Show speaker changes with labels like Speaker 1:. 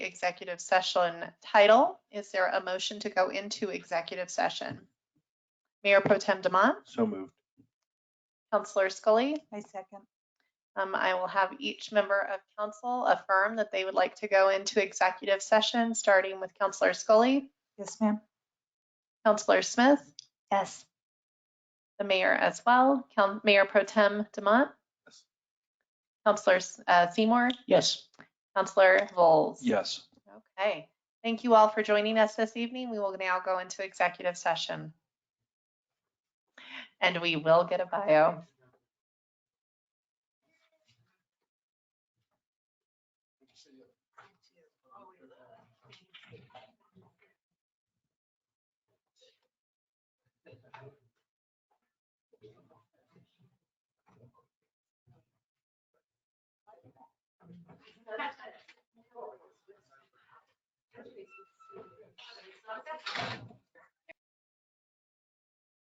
Speaker 1: executive session title. Is there a motion to go into executive session? Mayor Pro Tem Demont,
Speaker 2: So moved.
Speaker 1: Counselor Scully,
Speaker 3: I second.
Speaker 1: um, I will have each member of council affirm that they would like to go into executive session, starting with Counselor Scully,
Speaker 3: Yes, ma'am.
Speaker 1: Counselor Smith,
Speaker 3: Yes.
Speaker 1: the mayor as well, Coun- Mayor Pro Tem Demont,
Speaker 2: Yes.
Speaker 1: Counselor uh, Seymour,
Speaker 2: Yes.
Speaker 1: Counselor Vols.
Speaker 2: Yes.
Speaker 1: Okay, thank you all for joining us this evening. We will now go into executive session. And we will get a bio.